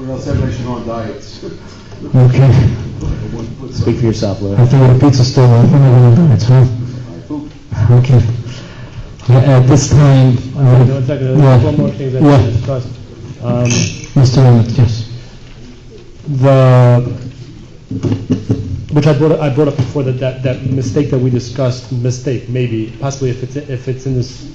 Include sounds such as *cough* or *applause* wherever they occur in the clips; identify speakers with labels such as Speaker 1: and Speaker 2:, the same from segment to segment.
Speaker 1: Or else everybody should on diets. *laughs*
Speaker 2: Okay.
Speaker 1: Speak
Speaker 3: Speak for yourself, Lou.
Speaker 2: I think the pizza's still open, I don't know, it's huh? Okay. Yeah, At this time, I would-
Speaker 4: No, it's like, uh,
Speaker 2: Yeah.
Speaker 4: one more thing that
Speaker 2: Yeah.
Speaker 4: we discussed. Um,
Speaker 2: Mr. Emmett, yes.
Speaker 4: The, which I brought, I brought up before, that, that, that mistake that we discussed, mistake, maybe, possibly if it's, if it's in this,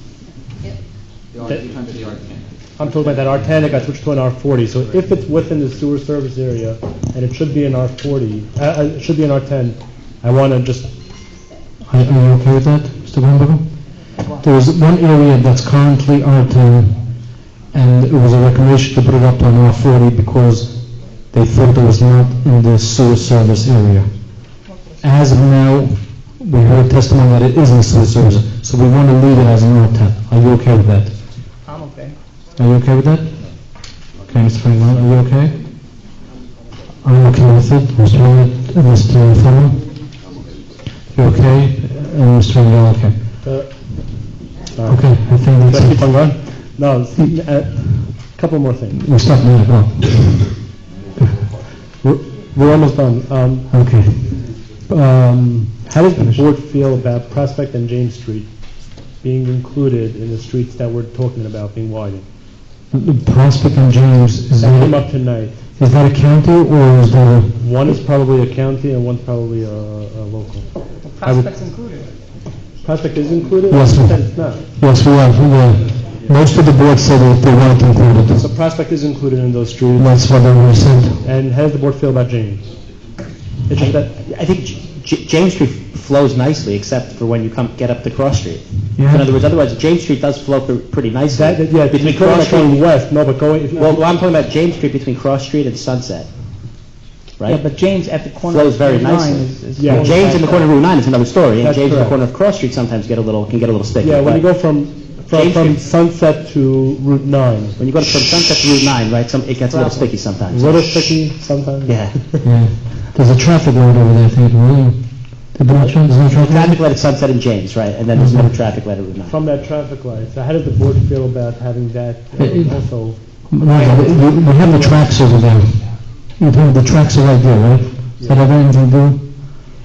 Speaker 5: The R,
Speaker 4: That-
Speaker 5: you the R ten.
Speaker 4: I'm talking about that R ten, it got switched to an R forty, so if it's within the sewer service area, and it should be an R forty, uh, uh, it should be an R ten, I wanna just,
Speaker 2: Are are you okay with that, Mr. Weinberger? There is one area that's currently R10, and it was a recommendation to put it up on R40 because they thought it was not in the sewer service area. As of now, we heard testimony that it is in sewer service, so we want to leave it as an R10. Are you okay with that?
Speaker 6: I'm okay.
Speaker 2: Are you okay with that? Okay, Mr. Franklin, are you okay? I'm okay with it, Mr. Willett, uh, Mr. Fennel? You okay? And Mr. Franklin, okay.
Speaker 4: uh, sorry.
Speaker 2: Okay, I think
Speaker 4: Can I keep
Speaker 2: that's
Speaker 4: on
Speaker 2: it.
Speaker 4: going? No, it's- uh, couple more things.
Speaker 2: We stop now, oh,
Speaker 4: We're, we're almost done. Um,
Speaker 2: okay.
Speaker 4: Um, How does the board feel about Prospect and James Street being included in the streets that we're talking about being widened?
Speaker 2: The Prospect and James, is
Speaker 3: Mm-hmm.
Speaker 4: That came
Speaker 2: that,
Speaker 4: up tonight.
Speaker 2: is that a county or is that a,
Speaker 4: One is probably a county and one's probably a, a local.
Speaker 6: The
Speaker 4: I would-
Speaker 6: prospects included.
Speaker 4: Prospect is included?
Speaker 2: Yes, sir.
Speaker 4: Then It's not.
Speaker 2: yes, we are, we are. Most of the board said that they weren't included.
Speaker 4: So Prospect is included in those streets.
Speaker 2: That's what they were said.
Speaker 4: And how does the board feel about James? It's just that,
Speaker 3: I think J- J- James Street flows nicely, except for when you come, get up to Cross Street.
Speaker 2: Yeah.
Speaker 3: In other words, otherwise, James Street does flow pre- pretty nicely.
Speaker 4: that, that- yeah, between
Speaker 3: Cross
Speaker 4: Cross Street and
Speaker 3: Street-
Speaker 4: West, no, but going, if,
Speaker 3: Well,
Speaker 4: you-
Speaker 3: well, I'm talking about James Street between Cross Street and Sunset,
Speaker 6: Yeah,
Speaker 3: right?
Speaker 6: but James at the corner.
Speaker 3: Flows very
Speaker 6: of Route
Speaker 3: nicely.
Speaker 6: nine is- is
Speaker 4: Yeah.
Speaker 6: going
Speaker 3: James in the
Speaker 6: back
Speaker 3: corner
Speaker 6: up.
Speaker 3: of Route 9 is another story, and
Speaker 4: That's
Speaker 3: James in the
Speaker 4: correct.
Speaker 3: corner of Cross Street sometimes get a little, can get a little sticky.
Speaker 4: yeah, when you
Speaker 3: but
Speaker 4: go from, from,
Speaker 3: James
Speaker 4: from
Speaker 3: Street-
Speaker 4: Sunset to Route nine,
Speaker 3: When you go from Sunset to Route 9, right, some, it gets a little sticky sometimes.
Speaker 4: it's a little sticky sometimes.
Speaker 3: Yeah.
Speaker 2: Yeah, there's a traffic light over there, I think, right? There's no tra- there's no traffic light?
Speaker 3: *laughs* Traffic light at Sunset and James, right, and then there's another traffic light at Route 9.
Speaker 4: from that traffic light. So how does the board feel about having that uh,
Speaker 2: It- it-
Speaker 4: also?
Speaker 2: No, but we we have the tracks over there. You have the tracks are right there, right? Does that have anything to do?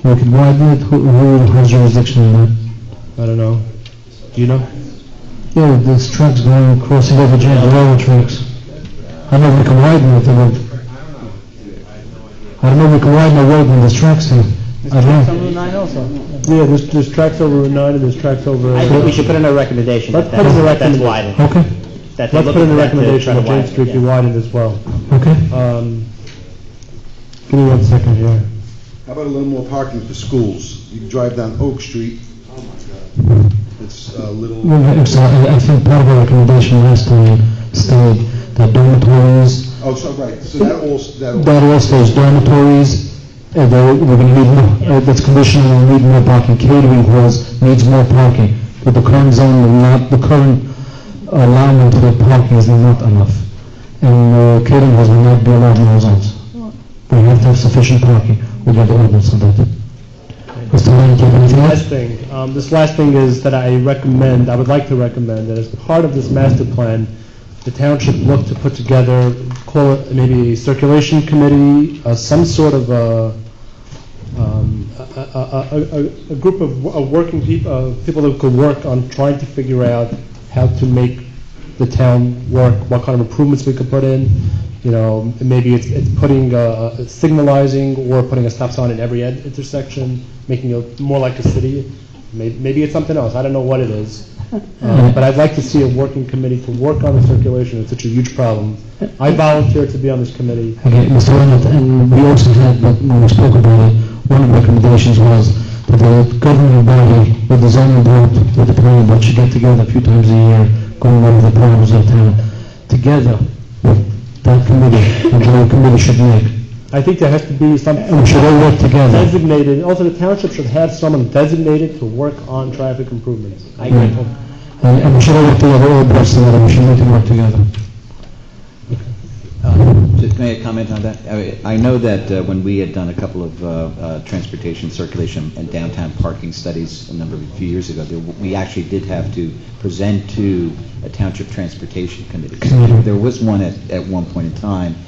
Speaker 2: We could widen it, who, who has jurisdiction in that?
Speaker 4: I don't know. Do you know?
Speaker 2: Yeah, there's tracks going across the over James, the railroad tracks. I know we can widen it, I don't. I don't know we can widen the road when there's tracks there. I don't
Speaker 6: Some
Speaker 2: know.
Speaker 6: Route nine also.
Speaker 4: Yeah, there's, there's tracks over Route 9 and there's tracks over...
Speaker 3: I think we should put in a recommendation
Speaker 4: Let's
Speaker 3: that
Speaker 4: put in a
Speaker 3: that- that's
Speaker 4: recommenda-
Speaker 3: widened.
Speaker 2: Okay,
Speaker 3: that they
Speaker 4: Let's
Speaker 3: look
Speaker 4: put in a
Speaker 3: at that to try
Speaker 4: recommendation
Speaker 3: to
Speaker 4: that James
Speaker 3: widen it,
Speaker 4: Street be
Speaker 3: yeah.
Speaker 4: widened as well.
Speaker 2: okay.
Speaker 4: Um, Give me one second here.
Speaker 1: How about a little more parking for schools? You can drive down Oak Street. Oh, It's a little,
Speaker 2: Well, I'm sorry, I I think part of our recommendation last time uh, stated that dormitories,
Speaker 1: oh, so, right, so that all, that all,
Speaker 2: that also is dormitories, and there- we're going to need, more- uh, that's conditional, we'll need more parking, catering halls needs more parking, but the current zone will not, the current allowance for the parking is not enough, and uh, catering halls will not be allowed in our zones. We have to have sufficient parking, we got the ordinance on that. Mr. Lane, do you have anything else?
Speaker 4: Last thing, um, this last thing is that I recommend, I would like to recommend that as part of this master plan, the town should look to put together, call it maybe a circulation committee, uh, some sort of a, um, a, a, a- a, a group of, wo- of working people, uh, people that could work on trying to figure out how to make the town work, what kind of improvements we could put in. You know, maybe it's, it's putting, uh, uh, signalizing or putting a stop sign in every ed- intersection, making it more like a city. May- Maybe it's something else, I don't know what it is. Uh, But I'd like to see a working committee to work on the circulation, it's such a huge problem. I volunteer to be on this committee.
Speaker 2: Okay, Mr. Leonard, and we also had, but when we spoke about it, one of the recommendations was that the governing body with the zoning board, with the planning board should get together a few times a year, going over the problems of town, together with that committee, and the committee should make.
Speaker 4: I think there has to be some.
Speaker 2: And we should all work together.
Speaker 4: designated, also the township should have someone designated to work on traffic improvements.
Speaker 3: I agree.
Speaker 2: And, and we should all work together, all boards together, we should need to work together.
Speaker 5: Um, Just may I comment on that? I I know that uh, when we had done a couple of uh, uh, transportation circulation and downtown parking studies a number of, a few years ago, there- we actually did have to present to a township transportation committee. There was one at, at one point in time,